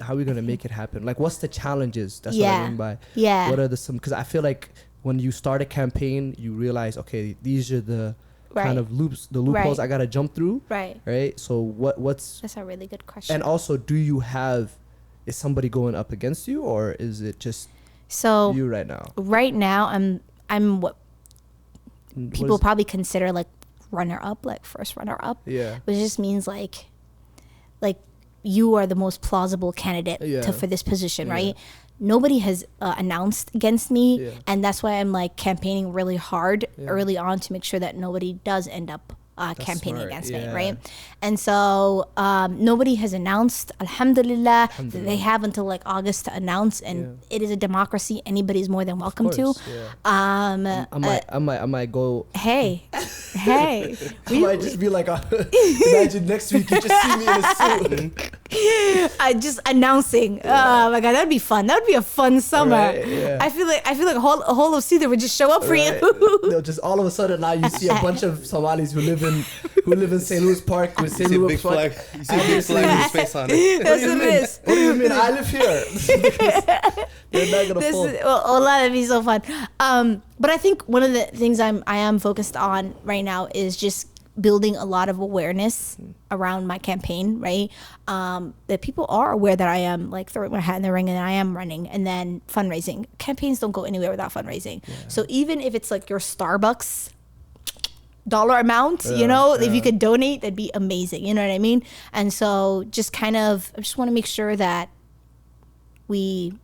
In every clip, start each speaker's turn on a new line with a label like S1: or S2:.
S1: how are we gonna make it happen? Like, what's the challenges? That's what
S2: Yeah.
S1: I mean by
S2: Yeah.
S1: what are the some? Because I feel like when you start a campaign, you realize okay, these are the
S2: Right.
S1: kind of loops, the loopholes
S2: Right.
S1: I gotta jump through,
S2: Right.
S1: right? So what what's
S2: That's a really good question.
S1: and also do you have is somebody going up against you or is it just
S2: so
S1: you right now?
S2: right now, I'm I'm what
S1: What is-
S2: people probably consider like runner up, like first runner up,
S1: yeah
S2: which just means like like you are the most plausible candidate
S1: Yeah.
S2: to, for this position,
S1: Yeah.
S2: right? Nobody has uh, announced against me,
S1: Yeah.
S2: and that's why I'm like campaigning really hard
S1: Yeah.
S2: early on to make sure that nobody does end up uh,
S1: That's
S2: campaigning
S1: smart,
S2: against me,
S1: yeah.
S2: right? And so um, nobody has announced. Alhamdulillah, they
S1: Alhamdulillah.
S2: have until like August to announce, and it is a democracy. Anybody is more than welcome to.
S1: course, yeah.
S2: Um, uh,
S1: I might I might I might go
S2: hey, hey,
S1: I might just be like a, imagine next week you just see me in a suit.
S2: I just announcing. Oh my god, that'd be fun. That would be a fun summer.
S1: Right, yeah.
S2: I feel like I feel like a whole, a whole of Cedar would just show up for you.
S1: Right? They'll just all of a sudden now you see a bunch of Somalis who live in who live in St. Louis Park with
S3: You
S1: St.
S3: see a
S1: Louis
S3: big
S1: Park.
S3: flag. You see a big flag with his face on it.
S1: What do
S2: That's
S1: you
S2: what
S1: mean?
S2: it is.
S1: What do you mean? I live here. They're not gonna
S2: This
S1: fold.
S2: is well, oh, that'd be so fun. Um, but I think one of the things I'm I am focused on right now is just building a lot of awareness around my campaign, right? Um, that people are aware that I am like throwing my hat in the ring and I am running and then fundraising. Campaigns don't go anywhere without fundraising. So even if it's like your Starbucks dollar amount, you
S1: Yeah,
S2: know, if you
S1: yeah.
S2: could donate, that'd be amazing. You know what I mean? And so just kind of, I just want to make sure that we,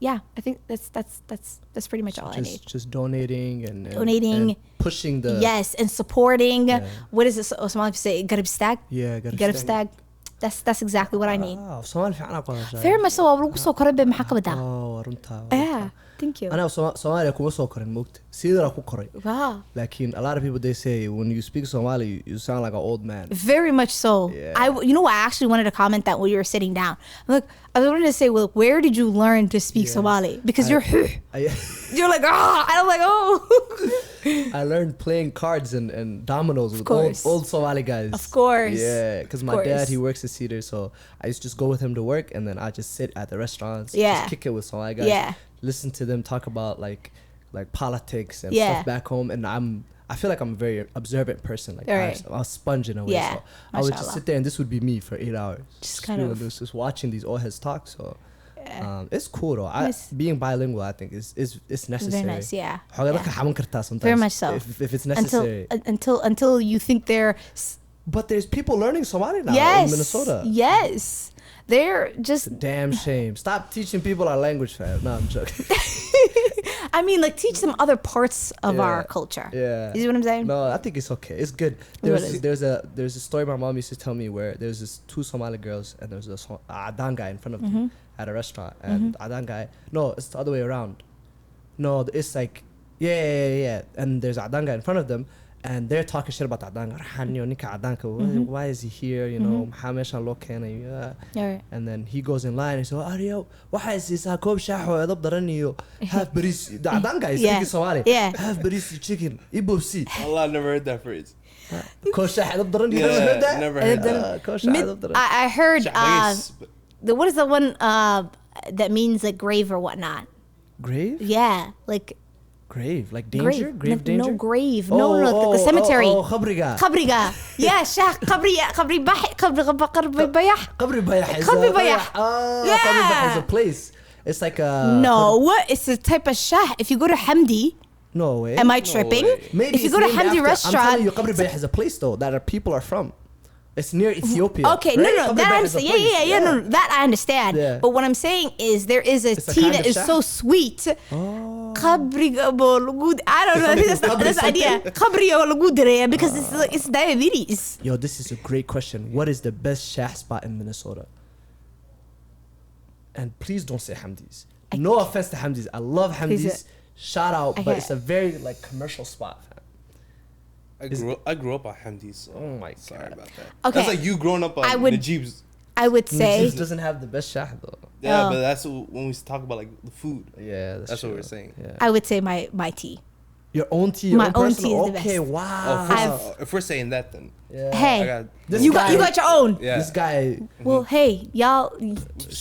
S2: yeah, I think that's, that's, that's, that's pretty much all I need.
S1: just just donating and, and
S2: Donating.
S1: and pushing the
S2: yes. And supporting,
S1: Yeah.
S2: what is this? Oh, someone say, Garib Stag?
S1: yeah gotta
S2: Garib Stag. That's, that's exactly what I need.
S1: اه وصومال في عنق ولا شيء.
S2: Very much so. I'm so قريب من حقبة ده.
S1: اه ورمتها
S2: Yeah. Thank you.
S1: انا وصوما- صومالي اكو وصو كورن موكت سيدر اكو كورن
S2: Wow.
S1: لكن a lot of people they say when you speak Somali you sound like an old man
S2: Very much so.
S1: Yeah.
S2: I, you know, what? I actually wanted to comment that when you were sitting down. Look, I wanted to say, well, where did you learn to speak
S1: Yeah.
S2: Somali? Because
S1: I-
S2: you're,
S1: I,
S2: you're like, ah, and I'm like, oh,
S1: I learned playing cards and, and dominoes with old,
S2: course.
S1: old Somali guys
S2: Of course.
S1: yeah because
S2: Of
S1: my dad
S2: course.
S1: he works at Cedar so I used to just go with him to work and then I just sit at the restaurants
S2: Yeah.
S1: just kick it with Somali guys
S2: Yeah.
S1: listen to them talk about like like politics and
S2: Yeah.
S1: stuff back home and I'm I feel like I'm a very observant person like
S2: Right.
S1: I'm a sponge in a way
S2: Yeah.
S1: so I would just
S2: Mashallah.
S1: sit there and this would be me for eight hours
S2: Just kind
S1: doing
S2: of-
S1: this, just watching these old heads talk so.
S2: Yeah.
S1: Um, it's cool though. I,
S2: Nice.
S1: being bilingual, I think is is it's necessary.
S2: nice, yeah.
S1: حوالك
S2: Yeah.
S1: حمون كرتها sometimes.
S2: Very much so.
S1: If, if it's
S2: until
S1: necessary.
S2: un- until until you think they're s-
S1: but there's people learning Somali now
S2: yes,
S1: in Minnesota.
S2: yes, they're just.
S1: Damn shame. Stop teaching people our language, fam. No, I'm joking.
S2: I mean, like teach them other parts of our
S1: Yeah.
S2: culture.
S1: Yeah.
S2: you see what I'm saying?
S1: No, I think it's okay. It's good.
S2: What
S1: There's
S2: is-
S1: there's a there's a story my mom used to tell me where there's this two Somali girls and there's this Som- a Adan guy in front of them
S2: Mm-hmm.
S1: at a restaurant and Adan guy no it's the other way around, no it's like yeah yeah yeah, yeah. and there's Adan guy in front of them and they're talking shit about Adan Rahani Onika Adan ka, why,
S2: Mm-hmm.
S1: why is he here you know Muhammad Shalom Khan, yeah.
S2: Alright.
S1: uh, and then he goes in line and says Ariel why is this Jacob Shaho have British the Adan guy is
S2: Yeah.
S1: speaking Somali
S2: Yeah.
S1: have British chicken ibopsi
S3: Allah, I never heard that phrase.
S1: كوش احد الضرن
S3: Yeah,
S1: يرد
S3: never heard that.
S1: كوش
S2: Mid-
S1: احد الضرن
S2: I, I heard. Uh,
S3: Shahbais, but-
S2: the, what is the one uh, that means like grave or whatnot?
S1: grave
S2: Yeah, like
S1: grave like danger
S2: grave,
S1: grave
S2: no,
S1: danger
S2: no grave, no, no, no, the- the cemetery.
S1: oh, oh خبرقة
S2: Kabriga. Yeah, Shah Kabriya Kabri Bahi Kabri Kabri Bayah.
S1: قبر بيح is a-
S2: قبر بيح.
S1: اه
S2: Yeah.
S1: قبر بيح is a place it's like a
S2: No, what? It's a type of Shah. If you go to Hamdi,
S1: no way
S2: am I tripping?
S3: way.
S1: maybe
S2: if you
S1: it's
S2: go to
S1: named
S2: Hamdi
S1: after- I'm telling
S2: restaurant,
S1: you قبر بيح is a place though that our people are from it's near Ethiopia
S2: okay, no,
S1: right?
S2: no,
S1: قبر
S2: that I
S1: بيح is a
S2: understand. Yeah, yeah, yeah,
S1: place.
S2: yeah, no, no, that I understand.
S1: Yeah.
S2: But what I'm saying is there is a
S1: a
S2: tea
S1: kind
S2: that
S1: of
S2: is
S1: Shah.
S2: so sweet.
S1: Oh.
S2: Kabriga Bolugud. I don't know. I think that's not that's the idea. Kabriya Bolugudreya because it's
S1: Ah.
S2: like it's diabetes.
S1: Yo, this is a great question. What is the best shah spot in Minnesota? And please don't say Hamdi's. no offense to Hamdi's. I love
S2: Please, uh,
S1: Hamdi's. Shout out,
S2: I
S1: but
S2: hear
S1: it's
S2: it.
S1: a very like commercial spot. fam.
S3: I grew, I grew up on Hamdi, so
S1: Oh my
S3: sorry
S1: God.
S3: about that.
S2: Okay.
S3: That's like you growing up on
S2: I would-
S3: Najib's.
S2: I would say
S1: This doesn't have the best shah though.
S3: Yeah,
S2: Oh. Uh,
S3: but that's when we talk about like the food.
S1: Yeah, that's,
S3: That's what
S1: true.
S3: we're saying.
S1: Yeah.
S2: I would say my my tea.
S1: Your own tea, your
S2: My
S1: own,
S2: own
S1: personal.
S2: tea is the
S1: okay,
S2: best.
S3: Oh,
S1: wow.
S3: if we're-
S2: I've-
S3: if we're saying that, then
S1: yeah.
S2: Hey,
S3: I got
S1: This
S2: you got you
S1: guy-
S2: got your own.
S3: yeah.
S1: This guy
S2: Well, hey, y'all,